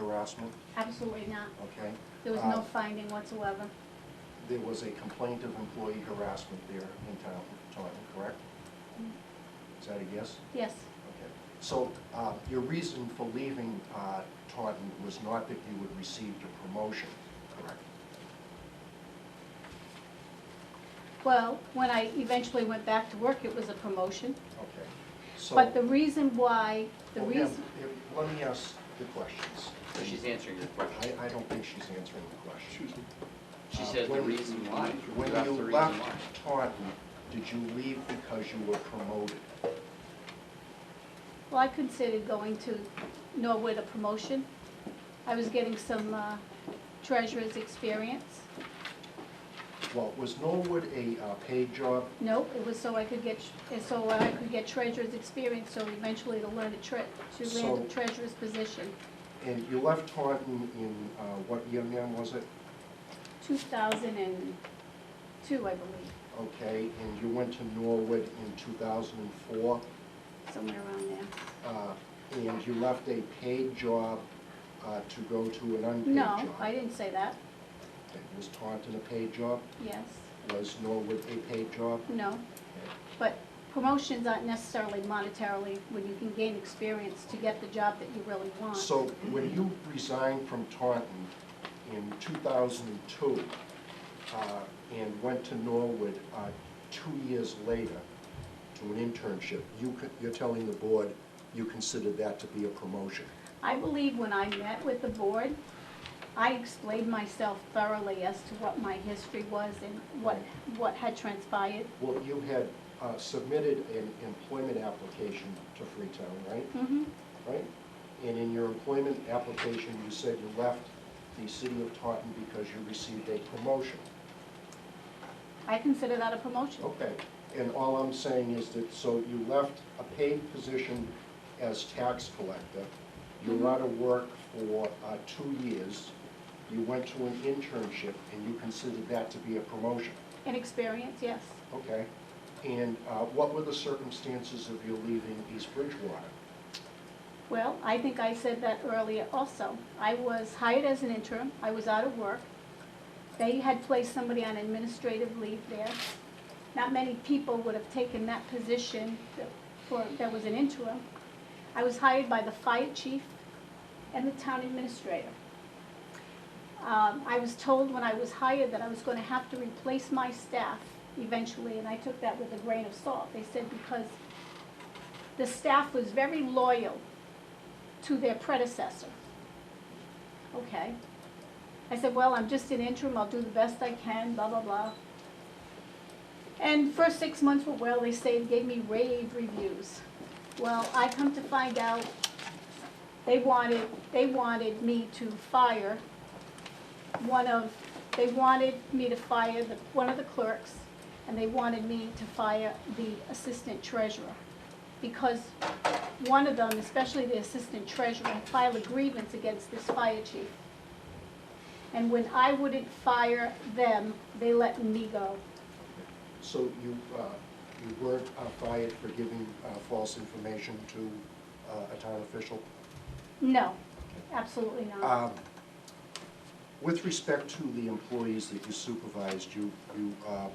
harassment, Absolutely not. okay? There was no Uh, finding whatsoever. There was a complaint of employee harassment there in town, Taunton, correct? Is that a yes? Yes, Okay. So uh, your reason for leaving uh, Taunton was not that you had received a promotion, correct? well, when I eventually went back to work, it was a promotion. Okay. So- But the reason why, the Well, ma'am, reason, if- Let me ask the questions. So she's answering your question. I, I don't think she's answering the question. She Uh, says the when- reason why. When That's the you reason why. left Taunton, did you leave because you were promoted? well, I considered going to Norwood a promotion. I was getting some uh, treasurer's experience. Well, was Norwood a uh, paid job? No, it was so I could get, so I could get treasurer's experience, so eventually to learn a tre, to land So- a treasurer's position. And you left Taunton in, uh, what year, ma'am, was it? 2002, I believe, Okay, and you went to Norwood in 2004, somewhere around there. uh, and you left a paid job uh, to go to an unpaid job? No, I didn't say that. Okay, Was Taunton a paid job? Yes, Was Norwood a paid job? no. But promotions aren't necessarily monetarily when you can gain experience to get the job that you really want. So when you resigned from Taunton in 2002 uh, and went to Norwood uh, two years later to an internship, you, co- you're telling the board you considered that to be a promotion? I believe when I met with the board, I explained myself thoroughly as to what my history was and what, what had transpired. Well, you had uh, submitted an employment application to Freetown, right? Mhm. Right? And in your employment application, you said you left the city of Taunton because you received a promotion. I consider that a promotion. Okay, and all I'm saying is that, so you left a paid position as tax collector, you were out of work for uh, two years, you went to an internship, and you considered that to be a promotion, An experience, yes. okay? And uh, what were the circumstances of you leaving East Bridgewater? Well, I think I said that earlier also. I was hired as an interim, I was out of work. They had placed somebody on administrative leave there. Not many people would have taken that position that- for, that was an interim. I was hired by the fire chief and the town administrator. Um, I was told when I was hired that I was gonna have to replace my staff eventually, and I took that with a grain of salt. They said because the staff was very loyal to their predecessor. Okay. I said, well, I'm just an interim, I'll do the best I can, blah, blah, blah. And first six months were well, they say, gave me rave reviews. Well, I come to find out, they wanted, they wanted me to fire one of, they wanted me to fire the, one of the clerks, and they wanted me to fire the assistant treasurer. Because one of them, especially the assistant treasurer, filed a grievance against this fire chief. And when I wouldn't fire them, they let me go. So you, uh, you weren't uh, fired for giving uh, false information to uh, a town official? No, absolutely not. Um, With respect to the employees that you supervised, you, you uh,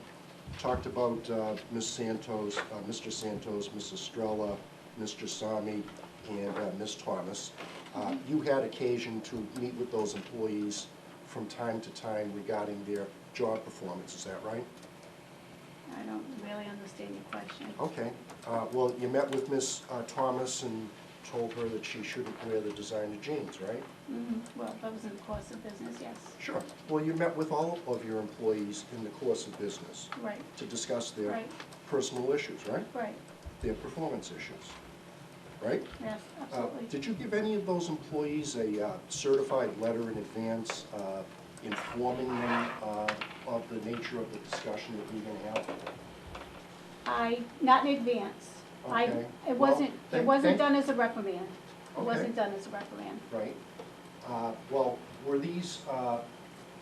talked about uh, Ms. Santos, uh, Mr. Santos, Ms. Estrella, Mr. Sami, and uh, Ms. Thomas. Uh, You had occasion to meet with those employees from time to time regarding their job performance, is that right? I don't really understand your question. Okay, Uh, well, you met with Ms. uh, Thomas and told her that she shouldn't wear the designer jeans, right? Mhm, Well, that was in the course of business, yes. Sure. Well, you met with all of your employees in the course of business Right, to discuss their right, personal issues, right? right, Their performance issues, right? yes, Uh, absolutely. Did you give any of those employees a uh, certified letter in advance uh, informing them uh, of the nature of the discussion that you're gonna have? I, not in advance. I, Okay. it Well, wasn't, it thank- wasn't thank- done as a reprimand. It Okay. wasn't done as a reprimand. Right? Uh, Well, were these uh,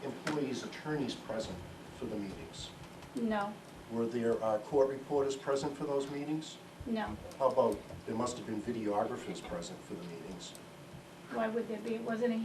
employees' attorneys present for the meetings? No, Were there uh, court reporters present for those meetings? no. How about, there must have been videographers present for the meetings. Why would there be? It wasn't a